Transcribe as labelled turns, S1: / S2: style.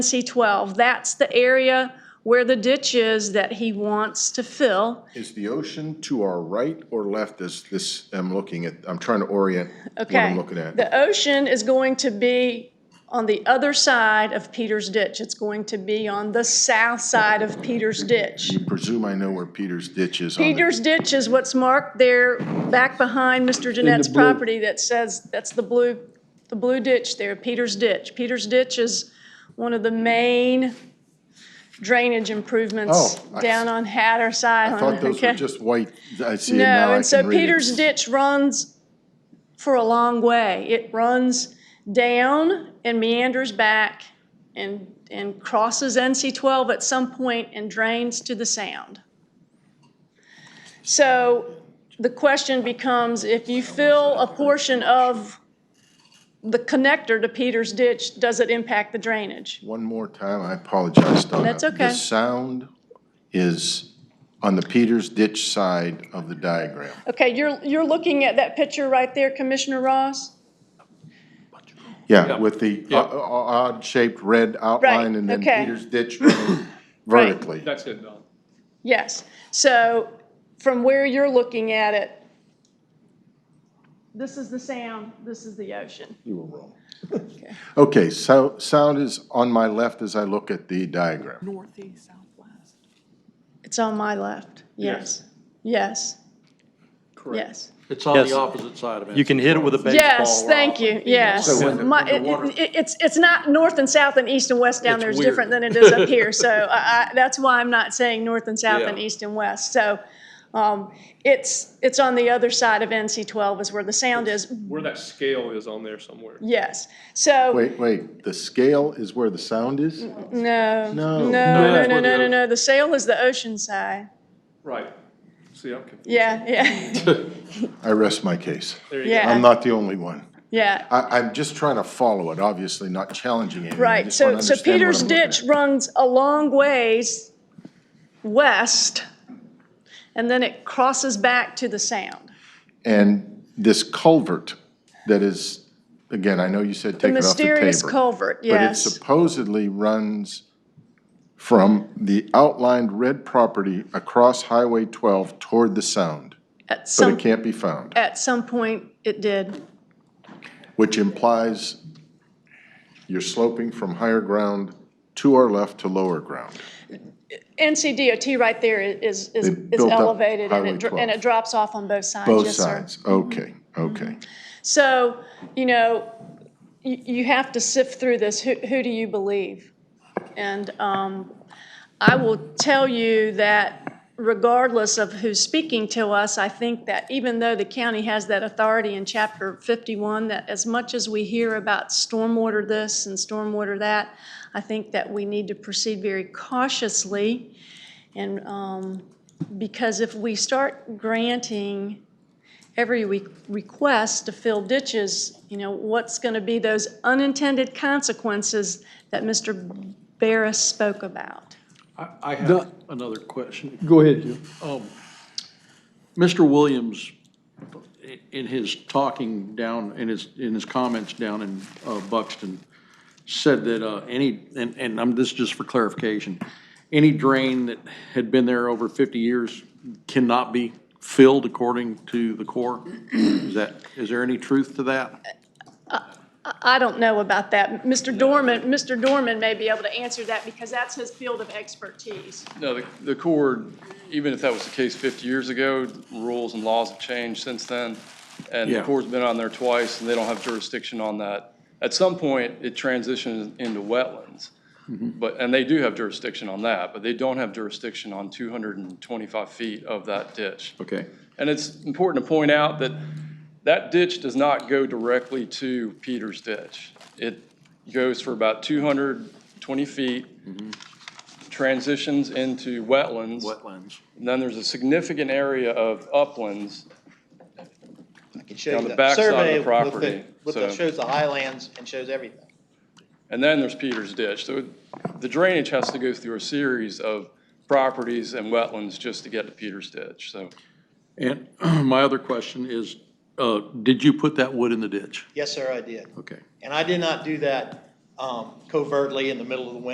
S1: C twelve, that's the area where the ditch is that he wants to fill.
S2: Is the ocean to our right or left as this, I'm looking at, I'm trying to orient what
S1: Okay.
S2: I'm looking at.
S1: The ocean is going to be on the other side of Peters Ditch. It's going to be on the south side of Peters Ditch.
S2: Presume I know where Peter's ditch is on it.
S1: Peters Ditch is what's marked there back behind Mr. Jeanette's
S3: blue.
S1: property that says, that's the blue, the blue ditch there, Peters Ditch. Peters Ditch is one of the main drainage improvements
S2: Oh, I-
S1: down on Hatteras
S2: I
S1: Island.
S2: thought those were
S1: okay?
S2: just white, I see it now,
S1: No,
S2: I
S1: and so
S2: can read it.
S1: Peters Ditch runs for a long way. It runs down and meanders back and, and crosses NC twelve at some point and drains to the sound. So the question becomes, if you fill a portion of the connector to Peters Ditch, does it impact the drainage?
S2: One more time, I apologize, Donna.
S1: That's okay.
S2: The sound is on the Peter's ditch side of the diagram.
S1: Okay, you're, you're looking at that picture right there, Commissioner Ross?
S2: Yeah, with the o-
S3: Yeah.
S2: o- odd-shaped red outline and then
S1: okay.
S2: Peter's ditch running vertically.
S3: That's it, Don.
S1: Yes, so from where you're looking at it, this is the sound, this is the ocean.
S2: You were wrong. Okay, so sound is on my left as I look at the diagram.
S4: northeast, southwest.
S1: It's on my left, yes, yes, yes.
S5: It's on
S6: Yes.
S5: the opposite side of it.
S6: You can hit it with a baseball.
S1: Yes, thank
S5: rock.
S1: you, yes.
S5: So when the-
S1: My,
S5: when the water-
S1: it- it- it's, it's not north and south and east and west down
S5: It's
S1: there is
S5: weird.
S1: different than it is up here. So I, I, that's why I'm not saying north and south and
S5: Yeah.
S1: east and west. So, um, it's, it's on the other side of NC twelve is where the sound is,
S3: Where that scale is on there somewhere.
S1: yes. So.
S2: Wait, wait, the scale is where the sound is?
S1: No.
S2: No.
S1: No,
S3: No,
S1: no,
S3: that's
S1: no,
S3: where
S1: no,
S3: the-
S1: no, no. The sail is the ocean side.
S3: Right. See, I'm confused.
S1: Yeah, yeah,
S2: I rest my case.
S3: There you go.
S2: I'm
S1: yeah,
S2: not the only one.
S1: yeah.
S2: I, I'm just trying to follow it, obviously not challenging anything. I
S1: Right,
S2: just
S1: so,
S2: wanna
S1: so
S2: understand what
S1: Peters
S2: I'm looking
S1: Ditch
S2: at.
S1: runs a long ways west, and then it crosses back to the sound.
S2: And this culvert that is, again, I know you said take it off the
S1: Mysterious
S2: table.
S1: culvert,
S2: But it
S1: yes.
S2: supposedly runs from the outlined red property across Highway 12 toward the sound,
S1: At
S2: but it
S1: some,
S2: can't be found,
S1: at some point, it did.
S2: which implies you're sloping from higher ground to our left to lower ground.
S1: NCDOT right there is, is,
S2: They
S1: is
S2: built up
S1: elevated, and
S2: Highway
S1: it, dr-
S2: 12.
S1: and it drops off on both sides,
S2: Both
S1: yes, sir. Mm-hmm.
S2: sides, okay, okay.
S1: So, you know, you, you have to sift through this, who, who do you believe? And, um, I will tell you that regardless of who's speaking to us, I think that even though the county has that authority in chapter fifty-one, that as much as we hear about stormwater this and stormwater that, I think that we need to proceed very cautiously. And, um, because if we start granting every re- request to fill ditches, you know, what's going to be those unintended consequences that Mr. Barris spoke about?
S5: I, I have
S3: The-
S5: another question.
S3: Go ahead, Jim.
S5: Mr. Williams, i- in his talking down, in his, in his comments down in uh, Buxton, said that uh, any, and, and I'm, this is just for clarification, any drain that had been there over 50 years cannot be filled according to the Corps? Is that, is there any truth to that?
S1: I don't know about that. Mr. Dorman, Mr. Dorman may be able to answer that because that's his field of expertise.
S7: No, the, the Corps, even if that was the case 50 years ago, rules and laws have changed since then. And the
S5: Yeah.
S7: Corps has been on there twice, and they don't have jurisdiction on that. At some point, it transitions into wetlands.
S6: Mm-hmm.
S7: But, and they do have jurisdiction on that, but they don't have jurisdiction on 225 feet of that ditch.
S5: Okay.
S7: And it's important to point out that that ditch does not go directly to Peters Ditch. It goes for about 220 feet, transitions into wetlands.
S5: Wetlands.
S7: And then there's a significant area of uplands.
S8: can show you
S7: On the
S8: that
S7: backside of the
S8: survey with
S7: property,
S8: With
S7: so-
S8: the, shows the highlands and shows everything.
S7: And then there's Peters Ditch. So the drainage has to go through a series of properties and wetlands just to get to Peters Ditch. So
S5: And my other question is, uh, did you put that wood in the ditch?
S8: Yes, sir, I did.
S5: Okay.
S8: And I did not do that, um, covertly in the middle of the winter